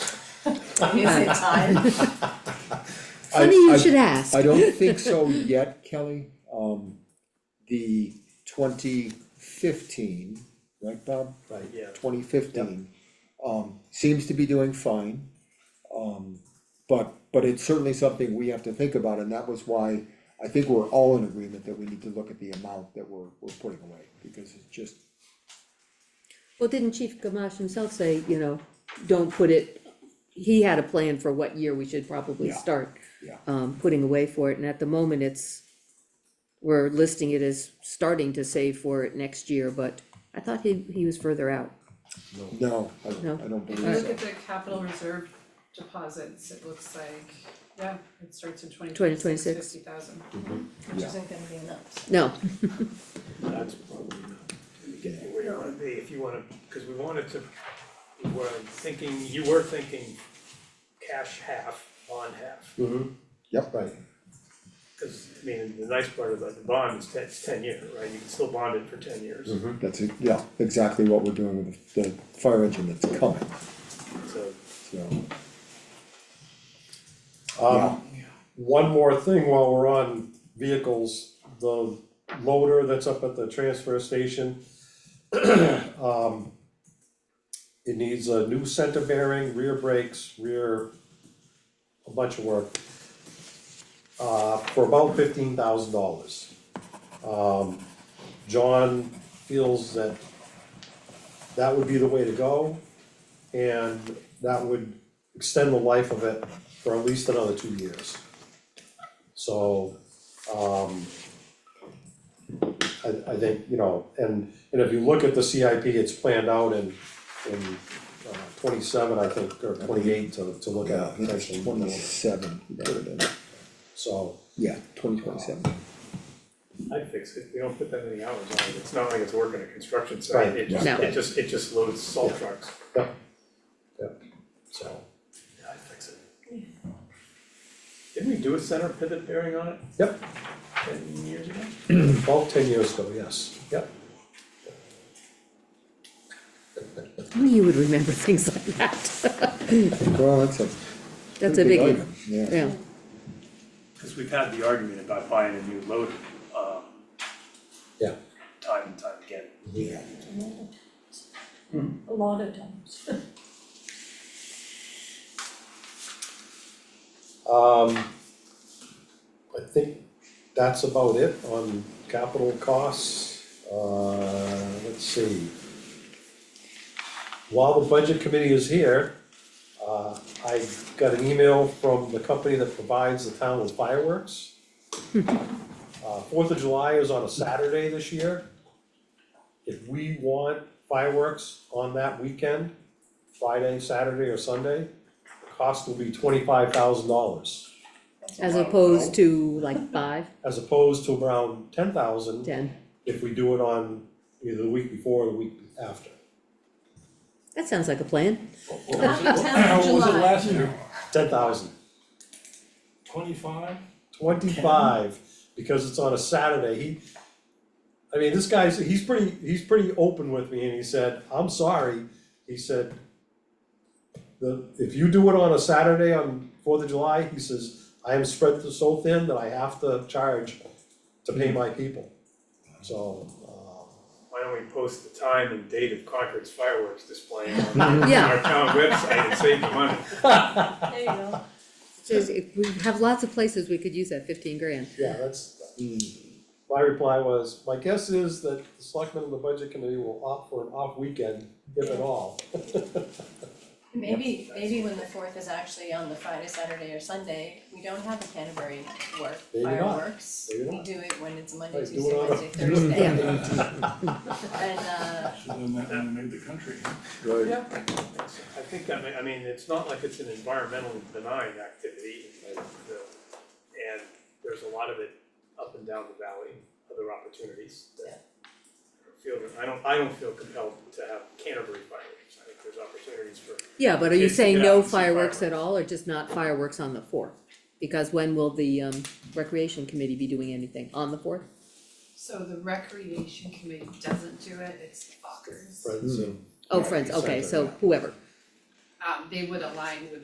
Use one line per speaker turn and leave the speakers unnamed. Is it time?
I-
Funny you
I-
should ask.
I don't think so yet, Kelly, um, the twenty fifteen, right, Bob?
Right, yeah.
Twenty fifteen, um, seems to be doing fine. Um, but, but it's certainly something we have to think about, and that was why I think we're all in agreement that we need to look at the amount that we're, we're putting away, because it's just,
Well, didn't Chief Gamache himself say, you know, don't put it, he had a plan for what year we should probably
Yeah.
start
yeah.
um putting away for it, and at the moment, it's we're listing it as starting to save for it next year, but I thought he he was further out.
No, I don't,
No.
I don't
If
believe
you
so.
look at the capital reserve deposits, it looks like, yeah, it starts in twenty
2026.
twenty-six, fifty thousand.
Yeah.
which isn't gonna be enough.
No,
That's probably not gonna get you where you wanna be, if you wanna, cause we wanted to, we were thinking, you were thinking cash half, bond half.
Mm.
Yep, right.
Cause, I mean, the nice part about the bond is ten, it's ten year, right, you can still bond it for ten years,
Mm-hmm.
That's, it. yeah, exactly what we're doing with the fire engine that's coming,
so.
so.
Um, one more thing while we're on vehicles, the loader that's up at the transfer station. um, It needs a new center bearing, rear brakes, rear, a bunch of work. Uh, for about fifteen thousand dollars. Um, John feels that that would be the way to go. And that would extend the life of it for at least another two years. So, um, I, I think, you know, and, and if you look at the CIP, it's planned out in, in uh, twenty-seven, I think, or twenty-eight to, to look
Yeah,
at
that's
potentially. more.
twenty-seven, you put it in.
So,
yeah, twenty twenty-seven.
I'd fix it, we don't put that many hours on it, it's not like it's working a construction site,
Right,
it just,
yeah. No.
it just, it just loads salt trucks.
Yep. Yep. so,
Yeah, I'd fix it. Didn't we do a center pivot bearing on it
yep,
ten years ago?
about ten years ago, yes, yep.
only you would remember things like that.
Well, that's a.
That's a
pretty big
biggie,
item, Yeah,
yeah.
Cause we've had the argument about buying a new loader, um.
Yeah.
Time and time again.
A lot of times.
Um, I think that's about it on capital costs. Uh, let's see. While the budget committee is here, uh, I got an email from the company that provides the town with fireworks. Uh, Fourth of July is on a Saturday this year. If we want fireworks on that weekend, Friday, Saturday, or Sunday, the cost will be twenty-five thousand dollars.
As opposed to like five,
as opposed to around ten thousand
ten,
if we do it on either the week before or the week after.
that sounds like a plan,
Not the tenth of July,
last year?
Ten thousand,
Twenty-five?
twenty-five, because it's on a Saturday, he, I mean, this guy's, he's pretty, he's pretty open with me and he said, I'm sorry, he said, the, if you do it on a Saturday on Fourth of July, he says, I am spread so thin that I have to charge to pay my people. So, um,
Why don't we post the time and date of Concord's fireworks display on our
Yeah.
our town website and save the money?
there you go.
says, if we have lots of places we could use that fifteen grand.
Yeah, that's, my reply was, my guess is that the selectmen and the budget committee will opt for an off weekend, if at all.
Maybe, maybe when the fourth is actually on the Friday, Saturday or Sunday, we don't have a Canterbury work
Maybe not.
fireworks.
Maybe not.
We do it when it's Monday,
Right, do
Tuesday,
it on a-
Wednesday, Thursday.
Yeah.
And uh,
Should have done that when we made the country.
right.
Yeah. I think that, may- I mean, it's not like it's an environmentally benign activity, but the- and there's a lot of it up and down the valley, other opportunities that feel, that- I don't, I don't feel compelled to have Canterbury fireworks, I think there's opportunities for
Yeah, but are you
Kids to
saying
get out
no
and see
fireworks at
fireworks.
all, or just not fireworks on the fourth? Because when will the um recreation committee be doing anything, on the fourth?
So the recreation committee doesn't do it, it's the fuckers.
Friends and
Oh, friends, okay, so
Exactly.
whoever.
Um, they would align with